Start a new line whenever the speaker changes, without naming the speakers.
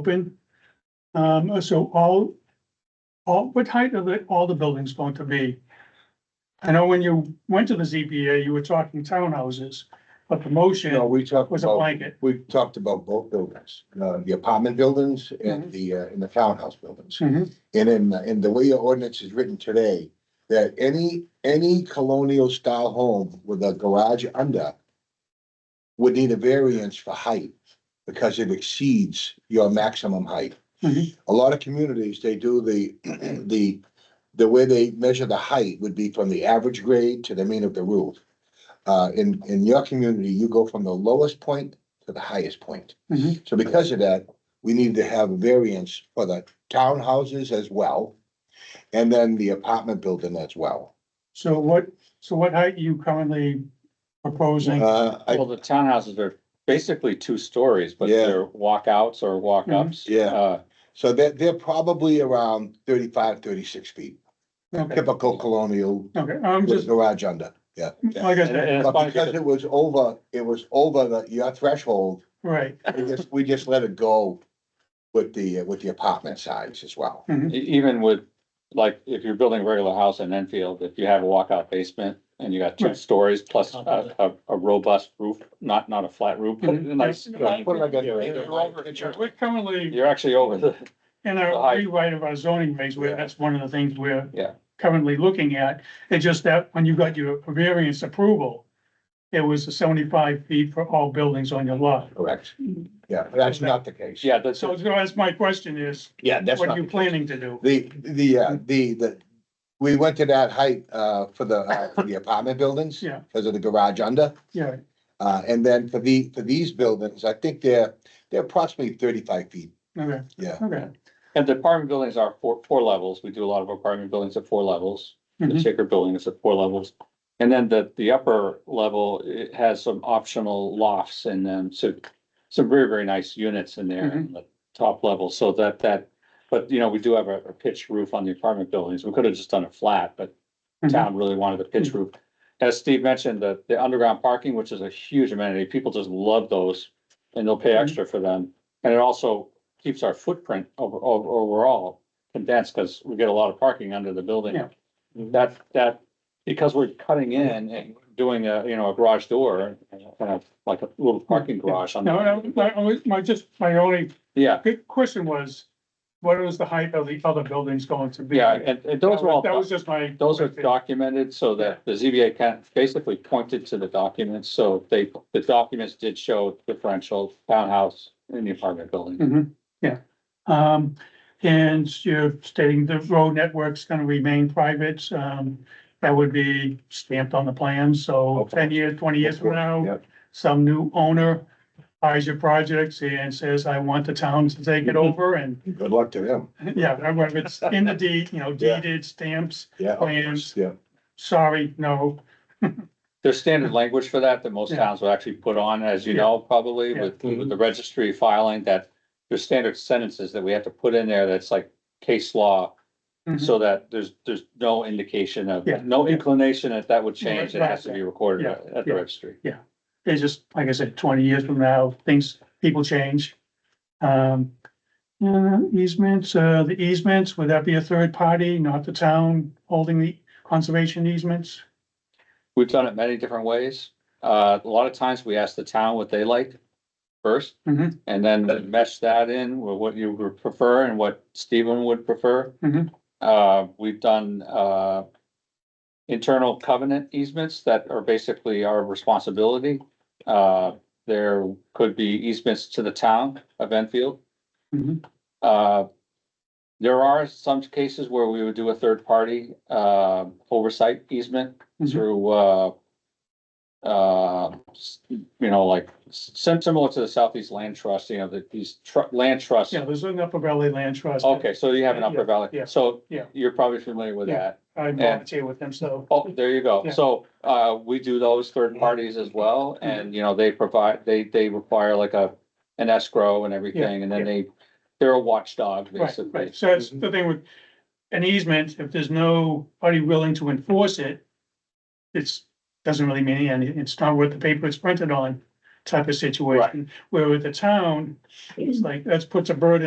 open. Um, so all, all, what height are the, all the buildings going to be? I know when you went to the ZBA, you were talking townhouses, but the
No,
motion
we talked
was a
about,
blanket.
we talked about both buildings, uh, the apartment buildings and the, uh, and the townhouse buildings.
Mhm.
And in, in the way your ordinance is written today, that any, any colonial style home with a garage under would need a variance for height because it exceeds your maximum height.
Mhm.
A lot of communities, they do the, the, the way they measure the height would be from the average grade to the mean of the roof. Uh, in, in your community, you go from the lowest point to the highest point.
Mhm.
So because of that, we need to have variance for the townhouses as well. And then the apartment building as well.
So what, so what height are you currently proposing?
Uh, I,
Well, the townhouses are basically two stories, but
Yeah. Mm-hmm.
they're walkouts or walk-ups.
Yeah.
Uh,
so they're, they're probably around 35, 36 feet,
Okay,
typical colonial
okay, I'm
with a
just,
garage under, yeah.
like I
And and
said,
it's
But
funny
because
because
it was over, it was over the, your threshold,
right,
we just, we just let it go with the, uh, with the apartment size as well.
e- even with, like, if you're building a regular house in Enfield, if you have a walkout basement and you got two
Right.
stories plus a, a, a robust roof, not, not a flat roof, but a
Mhm.
nice,
Yeah.
uh,
What am I gonna-
we're currently.
you're actually over the,
In
The height.
our rewrite of our zoning regs, where that's one of the things we're.
Yeah.
Currently looking at, it's just that when you got your variance approval. It was seventy-five feet for all buildings on your lot.
Correct. Yeah, but that's not the case.
yeah, that's,
So that's my question is,
Yeah, that's
what
not.
are you planning to do?
The, the, uh, the, the, we went to that height, uh, for the, uh, for the apartment buildings.
Yeah.
Because of the garage under,
Yeah,
uh, and then for the, for these buildings, I think they're, they're approximately thirty-five feet,
okay,
yeah.
okay.
and the apartment buildings are four, four levels. We do a lot of apartment buildings at four levels. the
Mhm.
Shaker Building is at four levels. And then the, the upper level, it has some optional lofts and then so some very, very nice units in there in the top level, so that, that, but you know, we do have a a pitched roof on the apartment buildings. We could have just done a flat, but
Mhm.
town really wanted a pitch
Mm-hmm.
roof. As Steve mentioned, the, the underground parking, which is a huge amenity, people just love those and they'll pay
Mhm.
extra for them. And it also keeps our footprint over, over, overall condensed because we get a lot of parking under the building.
Yeah.
That, that, because we're cutting in
Mm-hmm.
and doing a, you know, a garage door, kind of like a little parking garage on.
No, no, my, only- my, just, my only
Yeah,
big question was, what is the height of the other buildings going to be?
yeah, and, and those are all.
That was just my.
Those are documented so that the ZBA can basically pointed to the documents, so they, the documents did show differential townhouse and the apartment building.
hmm yeah. Um, and you're stating the road network's gonna remain private, um, that would be stamped on the plan, so
Okay.
ten years, twenty years from now,
Yep.
some new owner buys your project and says, I want the town to take
Mm-hmm.
it over, and,
Good luck to them,
yeah, whether it's in the deed, you know,
Yeah.
deeded stamps,
yeah. of
Plans.
course, Yeah,
sorry, no,
There's standard language for that that most
Yeah.
towns would actually put on, as you
Yeah.
know, probably
Yeah. Mm-hmm.
with, with the registry filing that there's standard sentences that we have to put in there that's like case law,
Mhm.
so that there's, there's no indication of,
Yeah.
no inclination that that would change. It has to be recorded
Yeah.
at at the
Yeah.
registry.
it's just, like I said, twenty years from now, things, people change. Um, uh, easements, uh, the easements, would that be a third party, not the town holding the conservation easements?
We've done it many different ways. Uh, a lot of times we ask the town what they like first.
Mhm.
And then we mesh that in with what you would prefer and what Stephen would prefer.
Mhm.
Uh, we've done, uh, internal covenant easements that are basically our responsibility. Uh, there could be easements to the town of Enfield.
Mhm.
Uh, there are some cases where we would do a third party, uh, oversight easement
Mhm.
through, uh, uh, s- you know, like s- sim- similar to the Southeast Land Trust, you know, that these tr- land trusts.
Yeah, there's an Upper Valley Land Trust.
Okay, so you have an
Yeah,
Upper Valley,
yeah,
so
yeah.
you're probably familiar with
Yeah.
that.
I volunteer with them, so.
Oh, there you go.
Yeah. Mm-hmm.
So, uh, we do those third parties as well, and, you know, they provide, they, they require like a, an escrow and everything, and
yeah.
then they, they're a watchdog,
Right,
basically.
right, so that's the thing with an easement, if there's nobody willing to enforce it, it's, doesn't really mean any, it's not worth the paper it's printed on type of situation. Where with the town, it's like, that's puts a burden